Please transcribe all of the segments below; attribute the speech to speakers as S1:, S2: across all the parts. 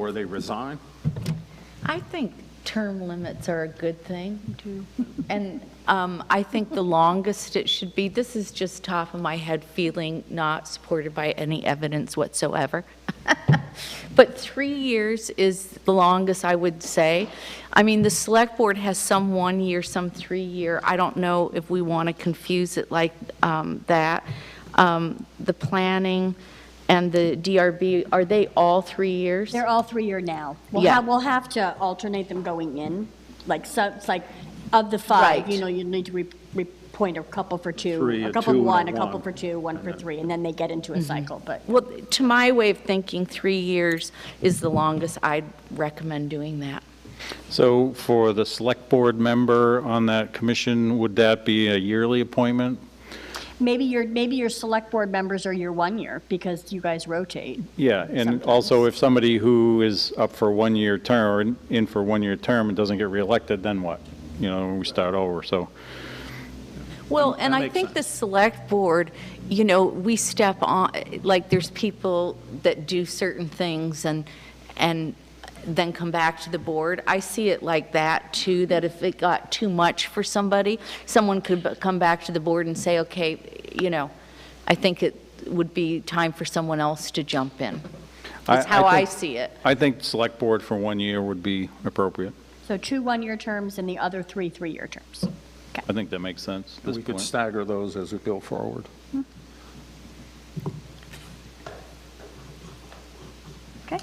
S1: or they resign.
S2: I think term limits are a good thing. And um, I think the longest it should be, this is just top of my head feeling, not supported by any evidence whatsoever. But three years is the longest, I would say. I mean, the select board has some one-year, some three-year. I don't know if we want to confuse it like um, that. Um, The planning and the DRB, are they all three years?
S3: They're all three-year now. We'll
S2: Yeah.
S3: have, we'll have to alternate them going in, like, so, it's like, of the five,
S2: Right.
S3: you know, you need to re, repoint a couple for two.
S1: Three, a
S3: A couple
S1: two,
S3: of
S1: and a
S3: one, a couple
S1: one.
S3: for two, one for three, and then they get
S2: Mm-hmm.
S3: into a cycle, but
S2: Well, to my way of thinking, three years is the longest I'd recommend doing that.
S4: So for the select board member on that commission, would that be a yearly appointment?
S3: maybe your, maybe your select board members are your one year, because you guys rotate.
S4: Yeah, and also if somebody who is up for one-year term, or in- in for one-year term and doesn't get reelected, then what? You know, we start over, so.
S2: Well, and
S1: That
S2: I
S1: makes
S2: think the select board, you know, we step on, like, there's people that do certain things and, and then come back to the board. I see it like that, too, that if it got too much for somebody, someone could b- come back to the board and say, okay, you know, I think it would be time for someone else to jump in. That's how I
S4: think-
S2: see it.
S4: I think select board for one year would be appropriate.
S3: So two one-year terms and the other three, three-year terms.
S4: I think that makes sense at this
S1: We could
S4: point.
S1: stagger those as we go forward.
S3: Okay?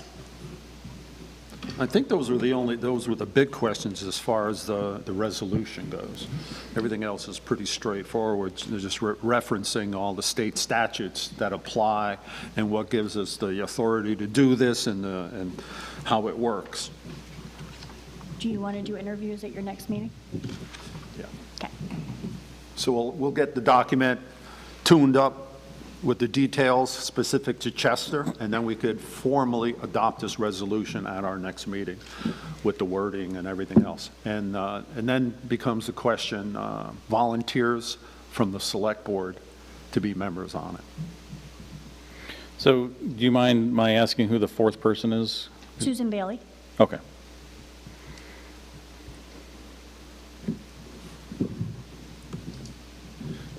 S1: I think those were the only, those were the big questions as far as the, the resolution goes. Everything else is pretty straightforward, They're just re- referencing all the state statutes that apply and what gives us the authority to do this and, the- and how it works.
S3: Do you want to do interviews at your next meeting?
S1: Yeah.
S3: Okay.
S1: So we'll, we'll get the document tuned up with the details specific to Chester, and then we could formally adopt this resolution at our next meeting with the wording and everything else. And, uh, and then becomes the question, uh, volunteers from the select board to be members on it.
S4: So do you mind my asking who the fourth person is?
S3: Susan Bailey?
S4: Okay.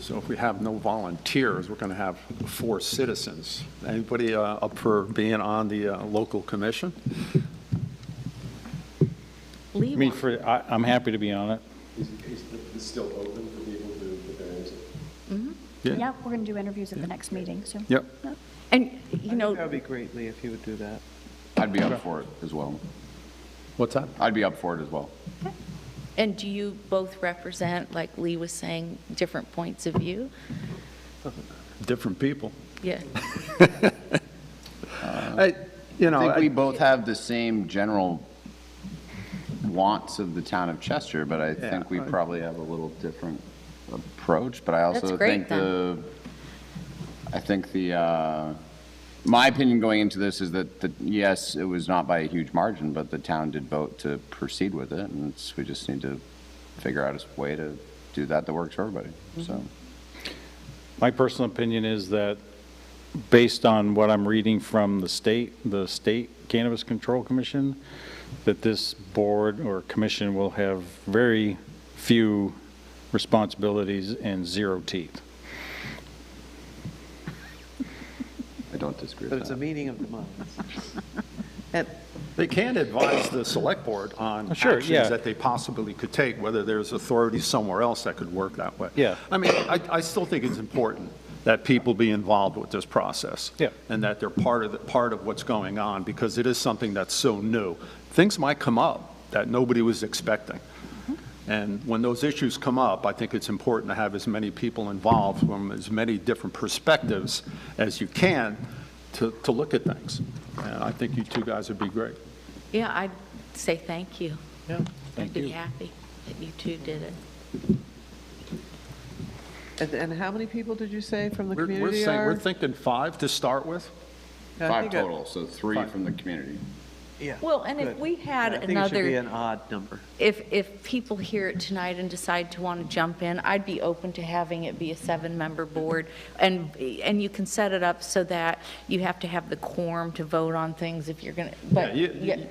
S1: So if we have no volunteers, we're going to have four citizens. Anybody uh, up for being on the uh, local commission?
S4: I
S2: Lee
S4: mean,
S2: wants-
S4: for, I, I'm happy to be on it.
S5: Is, is this still open for people to put their names in?
S3: Yeah, we're going to do interviews at the next meeting, so.
S1: Yep.
S2: And, you know.
S6: That would be great, Lee, if you would do that.
S5: I'd be up for it as well.
S1: What's that?
S5: I'd be up for it as well.
S2: And do you both represent, like Lee was saying, different points of view?
S1: Different people.
S2: Yeah.
S1: I- You know,
S5: I think we
S1: I-
S5: both have the same general wants of the town of Chester, but I
S1: Yeah,
S5: think we
S1: I-
S5: probably have a little different approach, but I also
S2: That's great,
S5: think
S2: then.
S5: the, I think the, uh, my opinion going into this is that, that, yes, it was not by a huge margin, but the town did vote to proceed with it, and it's, we just need to figure out a way to do that that works for everybody, so.
S4: My personal opinion is that, based on what I'm reading from the state, the State Cannabis Control Commission, that this board or commission will have very few responsibilities and zero teeth.
S5: I don't disagree
S6: But
S5: with
S6: it's a
S5: that.
S6: meeting of the minds.
S1: They can advise the select board on
S4: Sure,
S1: actions
S4: yeah.
S1: that they possibly could take, whether there's authority somewhere else that could work that way.
S4: Yeah.
S1: I mean, I, I still think it's important that people be involved with this process.
S4: Yeah.
S1: And that they're part of, the part of what's going on, because it is something that's so new. Things might come up that nobody was expecting. And when those issues come up, I think it's important to have as many people involved from as many different perspectives as you can to, to look at things. And I think you two guys would be great.
S2: Yeah, I'd say thank you.
S6: Yeah,
S2: I'd be happy that you two did it.
S6: And, and how many people did you say from the
S1: We're, we're
S6: community
S1: saying,
S6: are?
S1: we're thinking five to start with?
S6: I
S5: Five
S6: think I-
S5: total, so three
S1: Five.
S5: from the community.
S6: Yeah.
S2: Well, and if
S6: good.
S2: we had
S6: Yeah, I think it should be
S2: another-
S6: an odd number.
S2: If, if people hear it tonight and decide to want to jump in, I'd be open to having it be a seven-member board. And, and you can set it up so that you have to have the quorum to vote on things if you're going to, but.
S1: Yeah, you-
S2: yeah.